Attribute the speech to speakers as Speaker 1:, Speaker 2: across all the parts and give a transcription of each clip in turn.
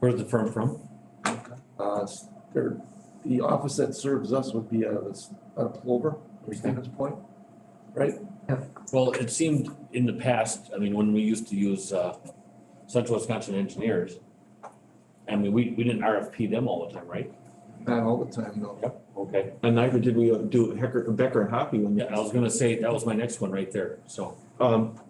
Speaker 1: Where's the firm from?
Speaker 2: Uh, s- there, the office that serves us would be out of this, out of Plover, or Stevens Point.
Speaker 1: Well, it seemed in the past, I mean, when we used to use, uh, Central Wisconsin Engineers, I mean, we, we didn't RFP them all the time, right?
Speaker 2: Not all the time, though.
Speaker 1: Okay.
Speaker 3: And neither did we uh, do Hecker, Becker and Hoppy when.
Speaker 1: Yeah, I was gonna say, that was my next one right there, so.
Speaker 3: Um,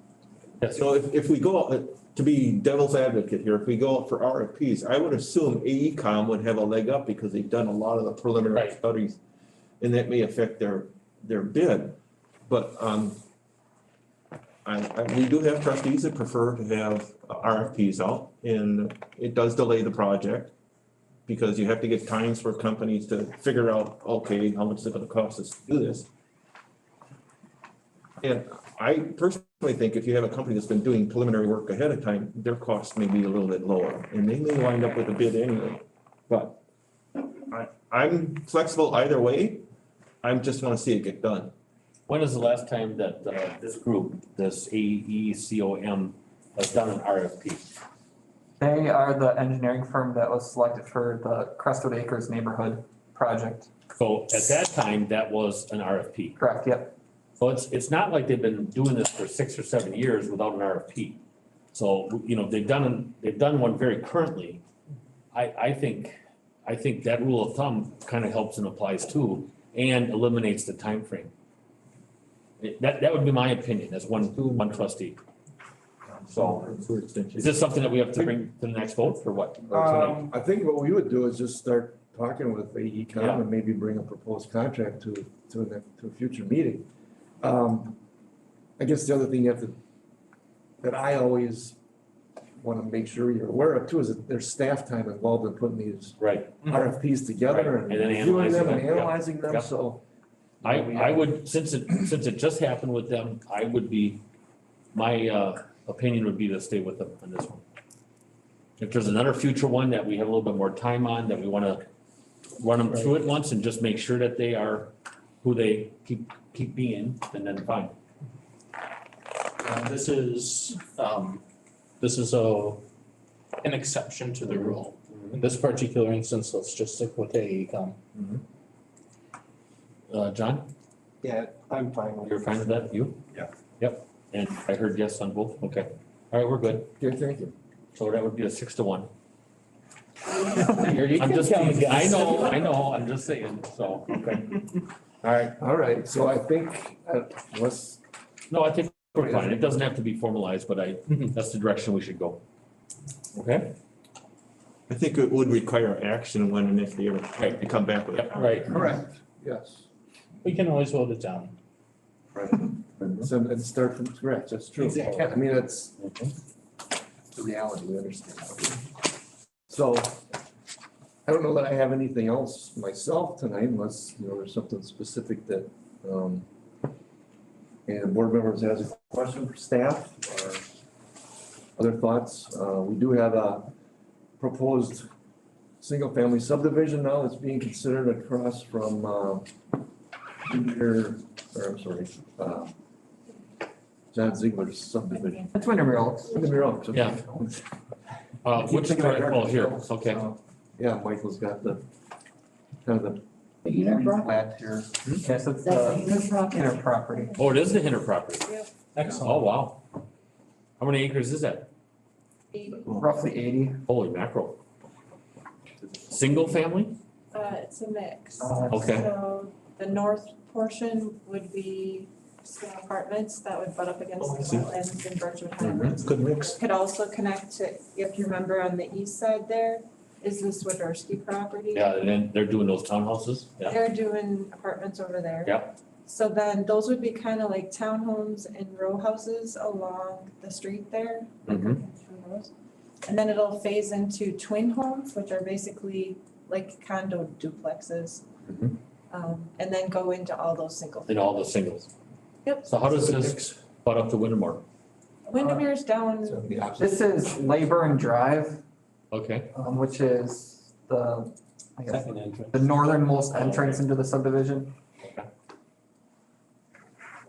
Speaker 3: so if, if we go, uh, to be devil's advocate here, if we go out for RFPs, I would assume AECom would have a leg up because they've done a lot of the preliminary
Speaker 1: Right.
Speaker 3: studies. And that may affect their, their bid, but, um, I, I, we do have trustees that prefer to have uh, RFPs out and it does delay the project. Because you have to get times for companies to figure out, okay, how much is it gonna cost us to do this? And I personally think if you have a company that's been doing preliminary work ahead of time, their costs may be a little bit lower, and they may wind up with a bid anyway. But I, I'm flexible either way, I'm just wanna see it get done.
Speaker 1: When is the last time that, uh, this group, this E AECOM, has done an RFP?
Speaker 4: They are the engineering firm that was selected for the Crestwood Acres neighborhood project.
Speaker 1: So at that time, that was an RFP.
Speaker 4: Correct, yep.
Speaker 1: So it's, it's not like they've been doing this for six or seven years without an RFP. So, you know, they've done, they've done one very currently. I, I think, I think that rule of thumb kind of helps and applies too, and eliminates the time frame. That, that would be my opinion as one, one trustee. So is this something that we have to bring to the next vote or what? Or tonight?
Speaker 2: Um, I think what we would do is just start talking with AECom
Speaker 1: Yeah.
Speaker 2: and maybe bring a proposed contract to, to, the- to a future meeting. Um, I guess the other thing you have to, that I always wanna make sure you're aware of too, is that there's staff time involved in putting these
Speaker 1: Right.
Speaker 2: RFPs together
Speaker 1: Mm-hmm. Right,
Speaker 2: and
Speaker 1: and then
Speaker 2: reviewing them and
Speaker 1: analyzing them, yeah,
Speaker 2: analyzing them,
Speaker 1: yeah.
Speaker 2: so.
Speaker 1: I,
Speaker 2: We
Speaker 1: I
Speaker 2: have-
Speaker 1: would, since it, since it just happened with them, I would be, my, uh, opinion would be to stay with them on this one. If there's another future one that we have a little bit more time on, that we wanna run them through it once and just make sure that they are who they keep, keep being, and then fine.
Speaker 5: Uh, This is, um, this is a, an exception to the rule. In this particular instance, let's just stick with E AECom.
Speaker 1: Uh, John,
Speaker 6: Yeah, I'm fine with it.
Speaker 1: you're fine with that, you?
Speaker 6: Yeah.
Speaker 1: Yep, and I heard yes on both, okay, all right, we're good,
Speaker 2: Okay, thank you.
Speaker 1: so that would be a six to one.
Speaker 5: Here, you
Speaker 1: I'm
Speaker 5: can
Speaker 1: just,
Speaker 5: count
Speaker 1: teasing. I
Speaker 5: against.
Speaker 1: know, I know, I'm just saying, so, okay. All right,
Speaker 2: All right, so I think, uh, unless
Speaker 1: No, I think we're fine. It doesn't have to be formalized, but I, that's the direction we should go. Okay?
Speaker 3: I think it would require action when and if they ever
Speaker 1: Right.
Speaker 3: they come back with it.
Speaker 1: Yep, right.
Speaker 2: Correct. Yes.
Speaker 5: We can always vote it down.
Speaker 2: So, and start from scratch, that's true.
Speaker 5: Exactly.
Speaker 2: I mean, that's the reality, we understand. So, I don't know that I have anything else myself tonight unless, you know, there's something specific that, um, and the board members has a question for staff or other thoughts. Uh, we do have a proposed single-family subdivision now that's being considered across from, uh, Junior, or I'm sorry, uh, John Ziegler's subdivision.
Speaker 4: That's Windermere Oaks.
Speaker 2: Windermere Oaks, okay.
Speaker 1: Yeah. Uh, which,
Speaker 2: Keep thinking about
Speaker 1: oh, here,
Speaker 2: Arkansas.
Speaker 1: okay.
Speaker 2: So, Yeah, Michael's got the, kind of the
Speaker 7: The unit property,
Speaker 4: Plat here.
Speaker 1: Hmm?
Speaker 4: Yes,
Speaker 7: that's
Speaker 4: it's
Speaker 7: the
Speaker 4: the
Speaker 7: unit property.
Speaker 4: inner property.
Speaker 1: Oh, it is the Hinter property.
Speaker 5: Excellent.
Speaker 1: Oh, wow. How many acres is that?
Speaker 4: Roughly eighty.
Speaker 1: Holy mackerel. Single family?
Speaker 8: Uh, it's a mix.
Speaker 4: Uh,
Speaker 1: Okay.
Speaker 8: So the north portion would be small apartments that would butt up against
Speaker 3: Oh, I
Speaker 8: the
Speaker 3: see.
Speaker 8: wetlands in Birchwood Highlands.
Speaker 3: Good mix.
Speaker 8: Could also connect to, if you remember on the east side there, is the Swiderski property.
Speaker 1: Yeah, and then they're doing those townhouses? Yeah.
Speaker 8: They're doing apartments over there.
Speaker 1: Yep.
Speaker 8: So then those would be kind of like townhomes and row houses along the street there. like
Speaker 1: Mhm.
Speaker 8: up through those. And then it'll phase into twin homes, which are basically like condo duplexes.
Speaker 1: Mhm.
Speaker 8: Um, and then go into all those single.
Speaker 1: And all the singles.
Speaker 8: Yep.
Speaker 1: So how does this butt up to Windermore?
Speaker 8: Windermere's down,
Speaker 2: so the opposite.
Speaker 4: This is Labor and Drive,
Speaker 1: Okay,
Speaker 4: um, which is the, I guess,
Speaker 5: Second entrance.
Speaker 4: the northernmost entrance into the subdivision.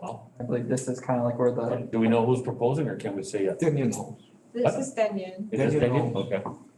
Speaker 1: wow.
Speaker 4: I believe this is kind of like where the
Speaker 1: Do we know who's proposing or can we say uh, it?
Speaker 2: Then you know.
Speaker 8: this is Denyon.
Speaker 1: Is this
Speaker 2: Daniel.
Speaker 1: Daniel? Okay.